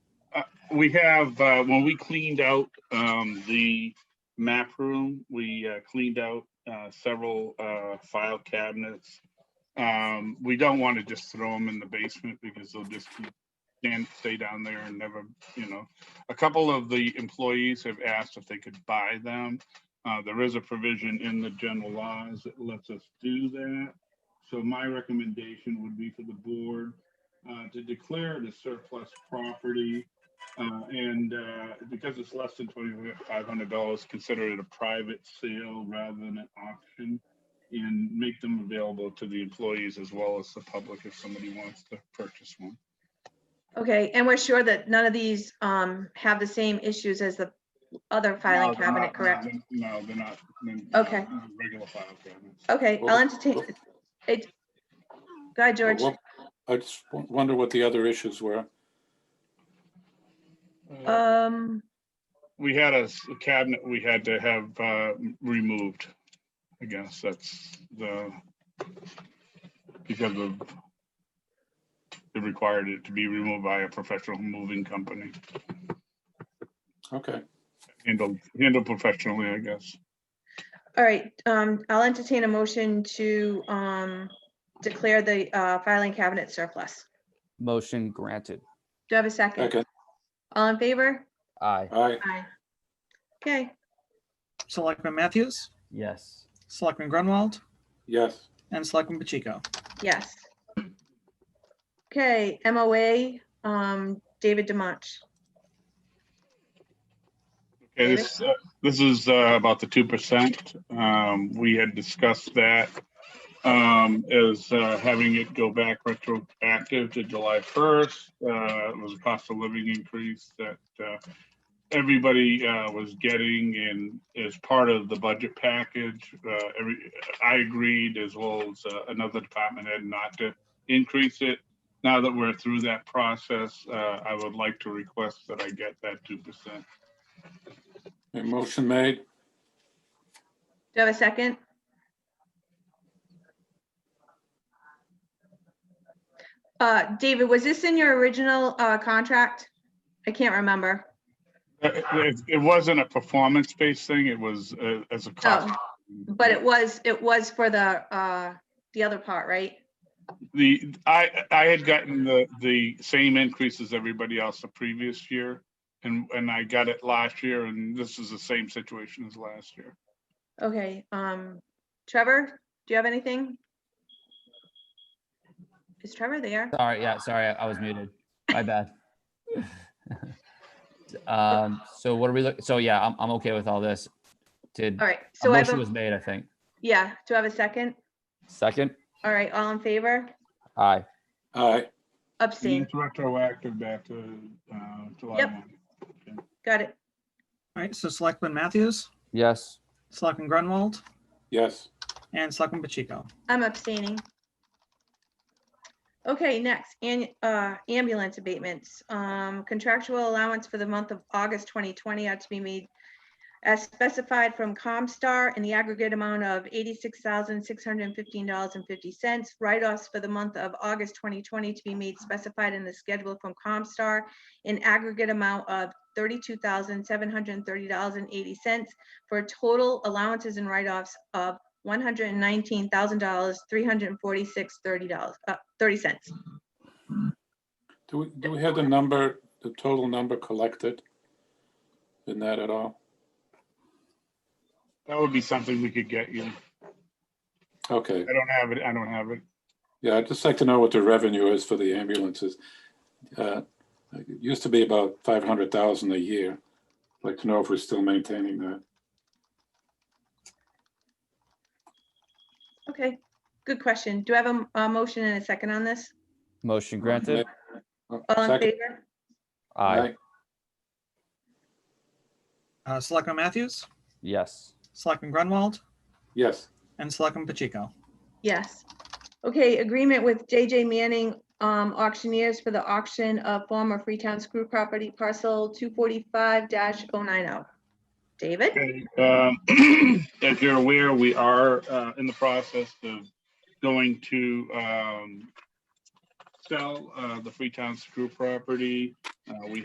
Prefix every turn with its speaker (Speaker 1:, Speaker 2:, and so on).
Speaker 1: we have, uh, when we cleaned out, um, the map room, we uh, cleaned out, uh, several, uh, file cabinets. Um, we don't want to just throw them in the basement because they'll just keep- and stay down there and never, you know. A couple of the employees have asked if they could buy them. Uh, there is a provision in the general laws that lets us do that. So my recommendation would be for the board, uh, to declare it a surplus property. Uh, and, uh, because it's less than twenty-five hundred dollars, consider it a private sale rather than an auction. And make them available to the employees as well as the public if somebody wants to purchase one.
Speaker 2: Okay, and we're sure that none of these um have the same issues as the other
Speaker 1: No,
Speaker 2: filing
Speaker 1: they're
Speaker 2: cabinet,
Speaker 1: not-
Speaker 2: correct?
Speaker 1: No, they're not. they're not
Speaker 2: Okay.
Speaker 1: Regular file cabinets.
Speaker 2: Okay, I'll
Speaker 3: Well,
Speaker 2: entertain.
Speaker 3: well-
Speaker 2: it- Go ahead, George.
Speaker 3: Well, I just w- wonder what the other issues were.
Speaker 2: Um,
Speaker 1: We had a s- a cabinet we had to have uh, removed. I guess that's the, because of, it required it to be removed by a professional moving company,
Speaker 3: Okay,
Speaker 1: handled, handled professionally, I guess.
Speaker 2: all right, um, I'll entertain a motion to um declare the uh filing cabinet surplus.
Speaker 4: Motion granted.
Speaker 2: Do I have a second?
Speaker 3: okay,
Speaker 2: All in favor?
Speaker 4: Aye.
Speaker 3: all right,
Speaker 2: Aye. Okay,
Speaker 5: Selectman Matthews,
Speaker 4: Yes.
Speaker 5: Selectman Grunwald,
Speaker 3: yes,
Speaker 5: and Selectman Pacheco.
Speaker 2: yes. Okay, MOA, um, David Demonch.
Speaker 1: Okay, this, uh, this is uh, about the two percent. Um, We had discussed that um, as uh, having it go back retroactive to July first. uh, It was a cost of living increase that uh, everybody uh, was getting and as part of the budget package, uh, every, I agreed as well as uh, another department head not to increase it. Now that we're through that process, uh, I would like to request that I get that two percent.
Speaker 3: A motion made,
Speaker 2: Do I have a second? Uh, David, was this in your original, uh, contract? I can't remember.
Speaker 1: It- It it wasn't a performance-based thing, it was uh, as a cost.
Speaker 2: Oh, but it was, it was for the, uh, the other part, right?
Speaker 1: The, I, I had gotten the, the same increase as everybody else the previous year. And, and I got it last year, and this is the same situation as last year.
Speaker 2: Okay, um, Trevor, do you have anything? Is Trevor there?
Speaker 4: Sorry, yeah, sorry, I I was muted. My bad. Um, so what are we, look- so yeah, I'm, I'm okay with all this. Did,
Speaker 2: All right,
Speaker 4: a
Speaker 2: so I have,
Speaker 4: motion was
Speaker 2: a-
Speaker 4: made, I think.
Speaker 2: yeah, do I have a second?
Speaker 4: Second?
Speaker 2: All right, all in favor?
Speaker 4: Aye.
Speaker 3: all right,
Speaker 2: Abstain,
Speaker 1: It's retroactive back to uh, July
Speaker 2: Yep.
Speaker 1: 1.
Speaker 2: got it.
Speaker 5: All right, so Selectman Matthews,
Speaker 4: Yes.
Speaker 5: Selectman Grunwald,
Speaker 3: yes,
Speaker 5: and Selectman Pacheco.
Speaker 2: I'm abstaining. Okay, next, an, uh, ambulance abatements. Um, contractual allowance for the month of August twenty twenty ought to be made as specified from Comstar in the aggregate amount of eighty-six thousand, six hundred and fifteen dollars and fifty cents. Write-offs for the month of August twenty twenty to be made specified in the schedule from Comstar in aggregate amount of thirty-two thousand, seven hundred and thirty dollars and eighty cents for a total allowances and write-offs of one hundred and nineteen thousand dollars, three hundred and forty-six, thirty dollars, uh, thirty cents.
Speaker 3: do we, do we have the number, the total number collected? In that at all?
Speaker 1: That would be something we could get you.
Speaker 3: Okay,
Speaker 1: I don't have it, I don't have it.
Speaker 3: yeah, I'd just like to know what the revenue is for the ambulances. Uh, It used to be about five hundred thousand a year, I'd like to know if we're still maintaining that,
Speaker 2: Okay, good question. Do I have a, a motion and a second on this?
Speaker 4: Motion granted.
Speaker 3: Oh,
Speaker 2: All in
Speaker 3: second,
Speaker 2: favor?
Speaker 4: Aye.
Speaker 3: aye,
Speaker 5: Uh, Selectman Matthews,
Speaker 4: Yes.
Speaker 5: Selectman Grunwald,
Speaker 3: yes,
Speaker 5: and Selectman Pacheco.
Speaker 2: Yes. Okay, agreement with JJ Manning um, Auctioneers for the auction of former Freetown Screw Property Parcel two forty-five 90 oh. David?
Speaker 1: Okay, um, As you're aware, we are uh, in the process of going to um, sell uh, the Freetown Screw property. Uh, We